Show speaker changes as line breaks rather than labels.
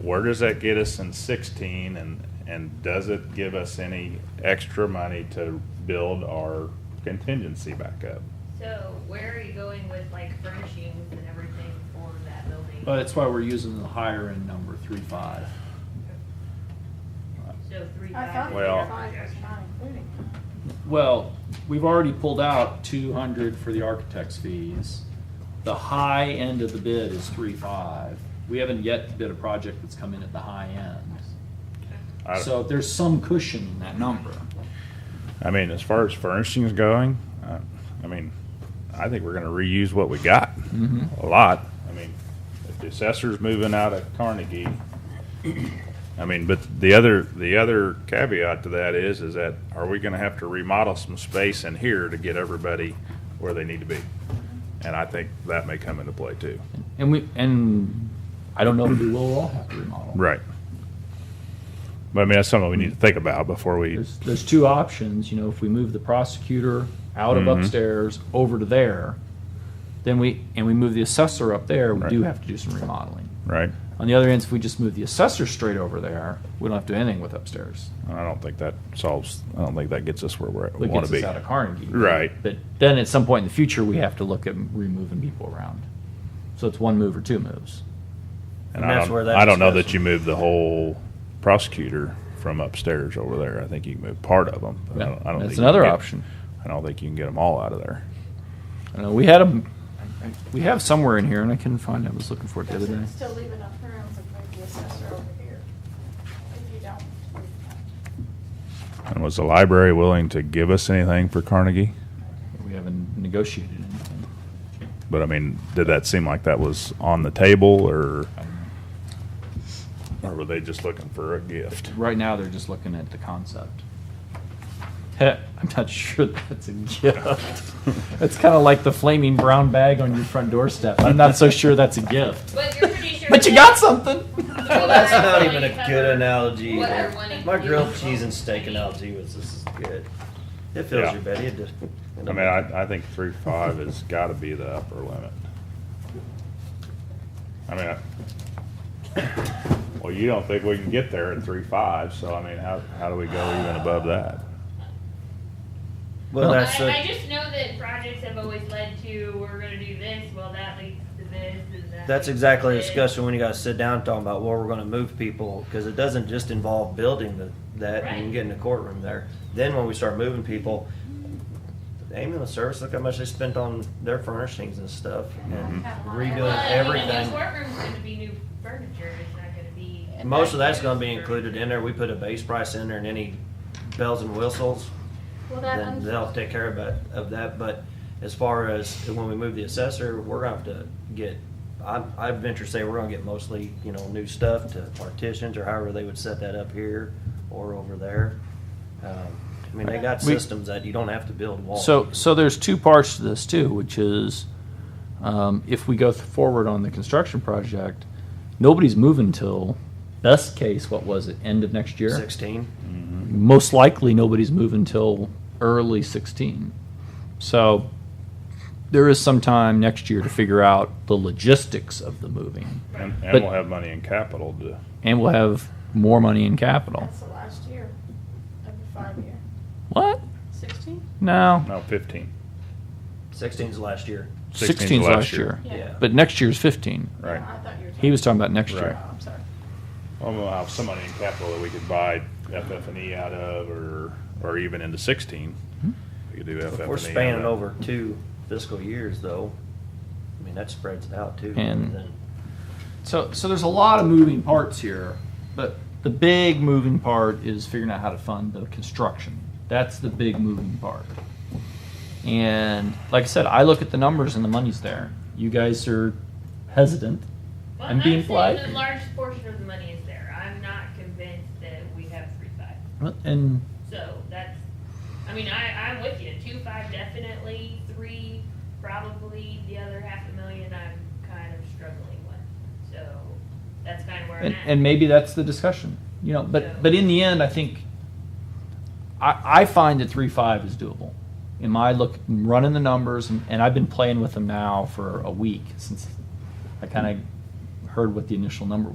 where does that get us in sixteen and, and does it give us any extra money to build our contingency back up?
So where are you going with like furnishings and everything for that building?
But that's why we're using the higher end number, three five.
So three
I thought
thousand.
the
Well-
five was not including.
Well, we've already pulled out two hundred for the architect's fees. The high end of the bid is three five. We haven't yet bid a project that's come in at the high end.
I-
So there's some cushion in that number.
I mean, as far as furnishings going, uh, I mean, I think we're gonna reuse what we got, a lot. I mean, if the assessor's moving out of Carnegie, I mean, but the other, the other caveat to that is, is that are we gonna have to remodel some space in here to get everybody where they need to be? And I think that may come into play too.
And we, and I don't know if we will all have to remodel.
Right. But I mean, that's something we need to think about before we,
There's, there's two options, you know, if we move the prosecutor out of
Mhm.
upstairs over to there, then we, and we move the assessor up there, we
Right.
do have to do some remodeling.
right?
On the other end, if we just move the assessor straight over there, we don't have to do anything with upstairs.
I don't think that solves, I don't think that gets us where we're,
That
wanna
gets
be.
us out of Carnegie.
Right.
But then at some point in the future, we have to look at removing people around. So it's one move or two moves.
And
And
I
that's
don't,
where that
I don't know that
discussion-
you move the whole prosecutor from upstairs over there. I think you can move part of them. I don't, I don't think
That's
you can
another
get-
option.
I don't think you can get them all out of there.
I don't know, we had them, we have somewhere in here and I couldn't find it, I was looking for it the other day.
Doesn't still leave enough room to put the assessor over here. If you don't.
And was the library willing to give us anything for Carnegie?
We haven't negotiated anything.
But I mean, did that seem like that was on the table, or or were they just looking for a gift?
Right now, they're just looking at the concept. Heh, I'm not sure that's a gift. It's kind of like the flaming brown bag on your front doorstep. I'm not so sure that's a gift.
But you're pretty sure.
But you got something.
Well,
That's not even a good
cover
analogy.
what they're
either.
wanting to
My
do.
grilled cheese and steak analogy was this is good. It fills
Yeah.
your belly. It does.
I mean, I, I think three five has got to be the upper limit. I mean, I, well, you don't think we can get there at three five, so I mean, how, how do we go even above that?
well,
Well,
that's
I, I
a,
just know that projects have always led to we're going to do this, well, that leads to this, and that. leads
that's
to
exactly a
this.
discussion when you got to sit down and talk about where we're going to move people because it doesn't just involve building the, that
Right.
and getting the courtroom there. Then when we start moving people, the ambulance service look how much they spent on their furnishings and stuff and
Well,
redoing
I mean,
everything.
The courtroom's going to be new furniture. It's not going to be.
Most of that's gonna be included in there. We put a base price in there and any bells and whistles,
Well,
then they'll take care of that, of that. But as far as when we move the assessor, we're gonna have to get, I, I venture to say we're gonna get mostly, you know, new stuff to partitions or however they would set that up here or over there. Um, I mean, they got
We-
systems that you don't have to build walls.
So, so there's two parts to this too, which is um, if we go th- forward on the construction project, nobody's moving till best case. What was it? End of next year.
Sixteen.
most likely nobody's moving until early 16. So there is some time next year to figure out the logistics of the moving.
And, and
But-
we'll have money in capital to.
And we'll have more money in capital.
That's the last year of the five year.
What?
Sixteen?
No.
No, 15.
Sixteen's last year.
16's
16's last,
last
year.
year.
Yeah.
But next year's 15.
Right.
I thought you were.
He was talking about next
Right.
year.
Oh, I'm sorry.
Well, we'll have some money in capital that we could buy FF&E E out of, or or even into 16. We could do FF&E.
If we're
E out
spanning
of-
over two fiscal years though, I mean, that spreads it out too.
And-
then-
So, so there's a lot of moving parts here, but the big moving part is figuring out how to fund the construction. That's the big moving part. And like I said, I look at the numbers and the money's there. You guys are hesitant.
Well,
I'm being
saying
polite.
The large portion of the money is there. I'm not convinced that we have three five.
And
So that's, I mean, I, I'm with you. Two five definitely, three probably, the other half a million I'm kind of struggling with. So that's kind of where I'm
and,
at.
and maybe that's the discussion. You know, but but in the end I think I, I find that three five is doable. In my look running the numbers and, and I've been playing with them now for a week since I kinda heard what the initial number